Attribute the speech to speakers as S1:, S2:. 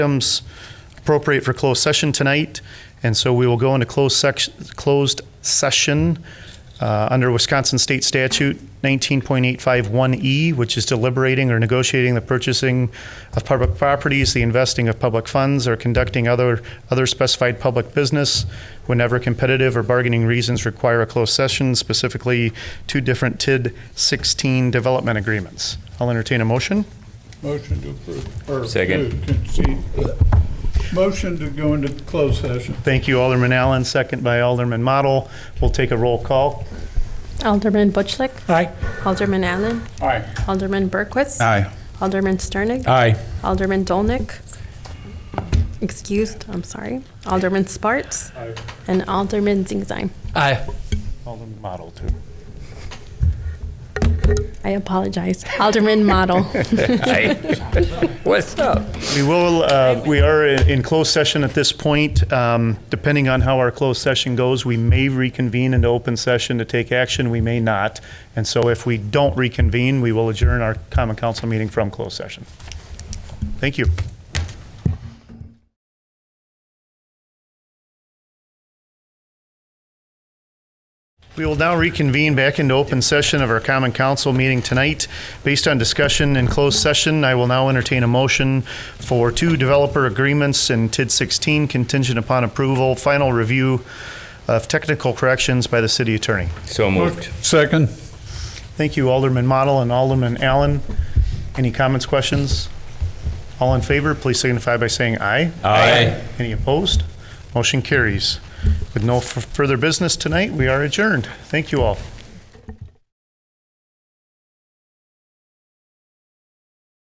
S1: items appropriate for closed session tonight, and so we will go into closed section, closed session uh, under Wisconsin State Statute 19.851E, E, which is deliberating or negotiating the purchasing of public properties, the investing of public funds, or conducting other, other specified public business whenever competitive or bargaining reasons require a closed session, specifically two different TID 16 development agreements. I'll entertain a motion.
S2: Motion to approve. or
S3: Second.
S2: to concede. Motion to go into closed session.
S1: Thank you, Alderman Allen, second by Alderman Model. We'll take a roll call.
S4: Alderman Butchlick. Aye. Alderman Allen.
S2: Aye.
S4: Alderman Berquist.
S3: Aye.
S4: Alderman Sternig.
S3: Aye.
S4: Alderman Dolnick. Excused, I'm sorry. Alderman Sparts.
S2: Aye.
S4: And Alderman Zingzine.
S3: Aye.
S1: Alderman Model, too.
S4: I apologize. Alderman Model.
S3: What's up?
S1: We will, uh, we are in in closed session at this point. Um, Depending on how our closed session goes, we may reconvene into open session to take action, we may not. And so if we don't reconvene, we will adjourn our common council meeting from closed session. Thank you. We will now reconvene back into open session of our common council meeting tonight. Based on discussion in closed session, I will now entertain a motion for two developer agreements in TID 16 contingent upon approval, final review of technical corrections by the city attorney.
S3: So moved.
S2: Second.
S1: Thank you Alderman Model and Alderman Allen. Any comments, questions? All in favor, please signify by saying aye.
S3: Aye.
S1: Any opposed? Motion carries. With no f- further business tonight, we are adjourned. Thank you all.